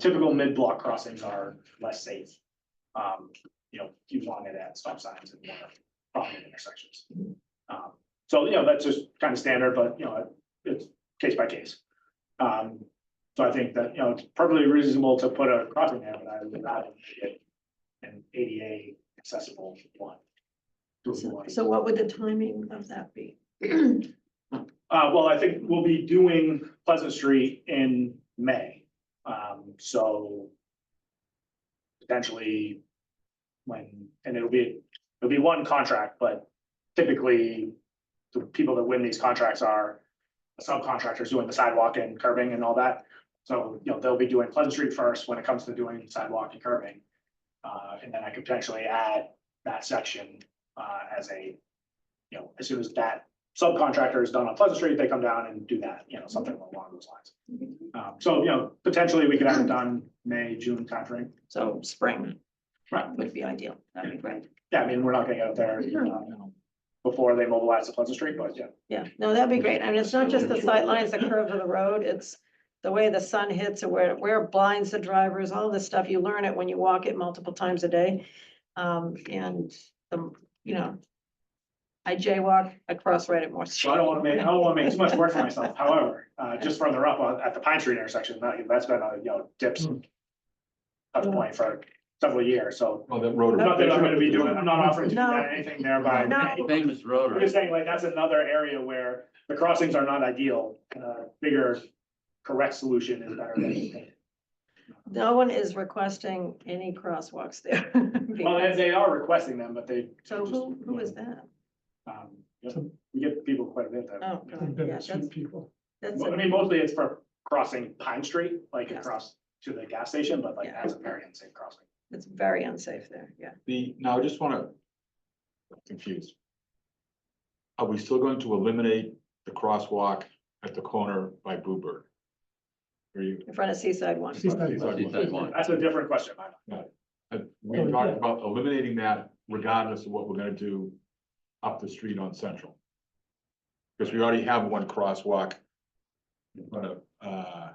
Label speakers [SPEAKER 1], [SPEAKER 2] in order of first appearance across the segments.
[SPEAKER 1] typical mid-block crossings are less safe. Um, you know, you want it at stop signs and more prominent intersections. Um, so, you know, that's just kind of standard, but, you know, it's case by case. Um, so I think that, you know, it's perfectly reasonable to put a crossing there, but I would not make it an ADA accessible one.
[SPEAKER 2] So so what would the timing of that be?
[SPEAKER 1] Uh, well, I think we'll be doing Pleasant Street in May, um, so. Potentially. When, and it'll be, it'll be one contract, but typically. The people that win these contracts are subcontractors doing the sidewalk and curbing and all that. So, you know, they'll be doing Pleasant Street first when it comes to doing sidewalk and curbing. Uh, and then I could potentially add that section, uh, as a. You know, as soon as that subcontractor is done on Pleasant Street, they come down and do that, you know, something along those lines. Um, so, you know, potentially we could have it done May, June timeframe.
[SPEAKER 2] So spring
[SPEAKER 1] Right.
[SPEAKER 2] would be ideal. That'd be great.
[SPEAKER 1] Yeah, I mean, we're not gonna get out there um, before they mobilize the Pleasant Street, but yeah.
[SPEAKER 2] Yeah, no, that'd be great. And it's not just the sightlines, the curve of the road, it's the way the sun hits or where, where it blinds the drivers, all this stuff. You learn it when you walk it multiple times a day. Um, and the, you know, I jaywalk, I cross right at Morse.
[SPEAKER 1] So I don't wanna make, I don't wanna make too much work for myself. However, uh, just further up on, at the Pine Street intersection, that, that's been a, you know, dips. Touch point for several years, so
[SPEAKER 3] Oh, that road.
[SPEAKER 1] not that I'm gonna be doing, I'm not offering to do that, anything there by.
[SPEAKER 2] No.
[SPEAKER 4] Famous
[SPEAKER 1] I'm
[SPEAKER 4] rotary.
[SPEAKER 1] just saying, like, that's another area where the crossings are not ideal, and a bigger correct solution is better than. anything.
[SPEAKER 2] No one is requesting any crosswalks there.
[SPEAKER 1] Well, and they are requesting them, but they.
[SPEAKER 2] So who, who is that?
[SPEAKER 1] Um, yeah, We get people quite a bit that,
[SPEAKER 2] Oh, God, yeah, that's,
[SPEAKER 5] people.
[SPEAKER 2] that's,
[SPEAKER 1] well, I mean, mostly it's for crossing Pine Street, like
[SPEAKER 2] Yes.
[SPEAKER 1] across to the gas station, but like
[SPEAKER 2] Yeah.
[SPEAKER 1] that's a very unsafe crossing.
[SPEAKER 2] it's very unsafe there, yeah.
[SPEAKER 3] The, now I just wanna. Confused. Are we still going to eliminate the crosswalk at the corner by Bluebird? Are you,
[SPEAKER 2] In front of Seaside One.
[SPEAKER 5] Seaside One.
[SPEAKER 4] Seaside One.
[SPEAKER 1] That's a different question. I
[SPEAKER 3] uh, we
[SPEAKER 1] Oh,
[SPEAKER 3] talked about eliminating that regardless of what we're gonna do up the street on Central. Because we already have one crosswalk. In front of, uh.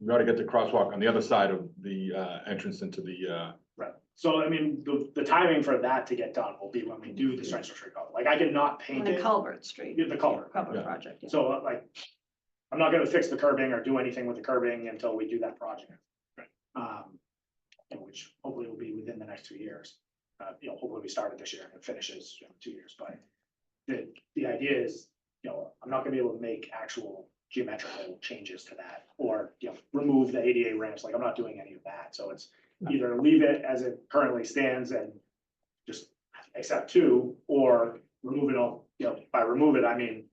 [SPEAKER 3] We already got the crosswalk on the other side of the uh entrance into the uh.
[SPEAKER 1] Right, so I mean, the, the timing for that to get done will be when we do the Central Street color, like I cannot
[SPEAKER 2] On
[SPEAKER 1] paint
[SPEAKER 2] the
[SPEAKER 1] it,
[SPEAKER 2] culvert street.
[SPEAKER 1] Yeah, the culvert.
[SPEAKER 2] Culvert
[SPEAKER 3] Yeah.
[SPEAKER 2] project, yeah.
[SPEAKER 1] So uh, like, I'm not gonna fix the curbing or do anything with the curbing until we do that project. Um, and which hopefully will be within the next two years. Uh, you know, hopefully we started this year and it finishes in two years, but the, the idea is, you know, I'm not gonna be able to make actual geometrical changes to that or, you know, remove the ADA ramps, like I'm not doing any of that, so it's either leave it as it currently stands and just accept two, or remove it all, you know, by remove it, I mean,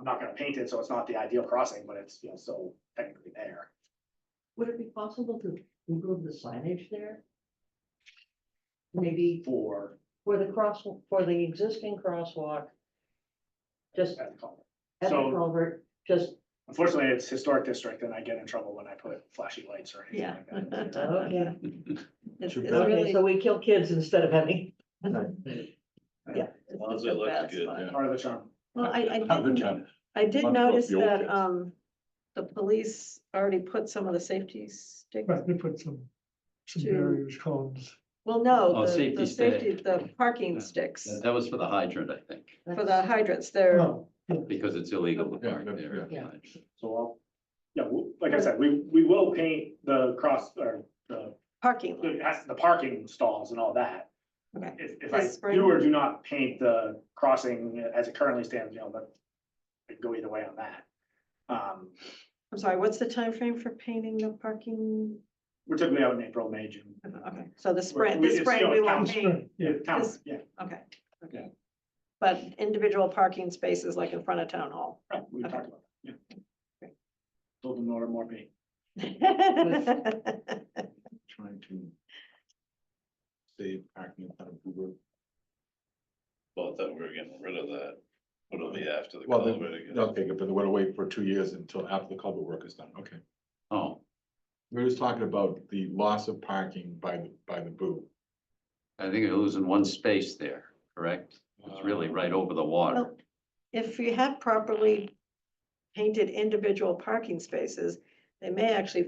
[SPEAKER 1] I'm not gonna paint it, so it's not the ideal crossing, but it's, you know, still technically there.
[SPEAKER 6] Would it be possible to improve the signage there? Maybe
[SPEAKER 1] For,
[SPEAKER 6] for the cross, for the existing crosswalk, just
[SPEAKER 1] at the color.
[SPEAKER 6] at the
[SPEAKER 1] So-
[SPEAKER 6] culvert, just,
[SPEAKER 1] Unfortunately, it's historic district, and I get in trouble when I put flashy lights or anything
[SPEAKER 2] Yeah.
[SPEAKER 1] like that.
[SPEAKER 6] okay,
[SPEAKER 2] It's it's
[SPEAKER 3] Too bad.
[SPEAKER 2] really.
[SPEAKER 6] okay, so we kill kids instead of having.
[SPEAKER 2] it's
[SPEAKER 4] long as
[SPEAKER 2] the
[SPEAKER 4] it looks
[SPEAKER 2] best
[SPEAKER 4] good,
[SPEAKER 2] spot.
[SPEAKER 3] yeah.
[SPEAKER 1] Part of the charm.
[SPEAKER 2] Well, I, I
[SPEAKER 3] Have a
[SPEAKER 2] did,
[SPEAKER 3] chat.
[SPEAKER 2] I did
[SPEAKER 3] Much love
[SPEAKER 2] notice
[SPEAKER 3] the old
[SPEAKER 2] that,
[SPEAKER 3] days.
[SPEAKER 2] um, the police already put some of the safety sticks.
[SPEAKER 5] Right, they put some, some
[SPEAKER 2] To-
[SPEAKER 5] barriers, cones.
[SPEAKER 2] Well, no,
[SPEAKER 4] Oh,
[SPEAKER 2] the,
[SPEAKER 4] safety
[SPEAKER 2] the safety,
[SPEAKER 4] stick.
[SPEAKER 2] the parking sticks
[SPEAKER 4] That that was for the hydrant, I think,
[SPEAKER 2] for the hydrants, they're,
[SPEAKER 5] Oh,
[SPEAKER 4] because it's illegal to
[SPEAKER 3] Yeah,
[SPEAKER 4] park
[SPEAKER 3] that-
[SPEAKER 4] there.
[SPEAKER 6] yeah.
[SPEAKER 1] So I'll, yeah, w- like I said, we, we will paint the cross, or the,
[SPEAKER 2] parking lot.
[SPEAKER 1] the as- the parking stalls and all that.
[SPEAKER 2] Okay.
[SPEAKER 1] If, if
[SPEAKER 2] This
[SPEAKER 1] I
[SPEAKER 2] spring?
[SPEAKER 1] do or do not paint the crossing as it currently stands, you know, but I could go either way on that. Um,
[SPEAKER 2] I'm sorry, what's the time frame for painting the parking?
[SPEAKER 1] we're typically out in April, May, June.
[SPEAKER 2] Okay, so the
[SPEAKER 1] we-
[SPEAKER 2] spring, this
[SPEAKER 1] it's, you
[SPEAKER 2] spring
[SPEAKER 1] know,
[SPEAKER 2] we
[SPEAKER 1] town
[SPEAKER 2] won't
[SPEAKER 1] spring.
[SPEAKER 2] paint,
[SPEAKER 1] Yeah, town,
[SPEAKER 2] This-
[SPEAKER 1] yeah,
[SPEAKER 2] okay. okay.
[SPEAKER 1] Yeah.
[SPEAKER 2] But individual parking spaces like in front of town hall.
[SPEAKER 1] right, we talked about that, yeah. Told them to order more paint.
[SPEAKER 3] trying to save parking out of Bluebird.
[SPEAKER 7] Well, I thought we were getting rid of that. It'll be after the
[SPEAKER 3] Well, then-
[SPEAKER 7] culvert again.
[SPEAKER 3] Okay, good, but we're gonna wait for two years until after the culvert work is done, okay.
[SPEAKER 4] Oh,
[SPEAKER 3] We were just talking about the loss of parking by, the by the boo.
[SPEAKER 4] I think you're losing one space there, correct? It's
[SPEAKER 3] Uh,
[SPEAKER 4] really right over the water.
[SPEAKER 2] Well, If you have properly painted individual parking spaces, they may actually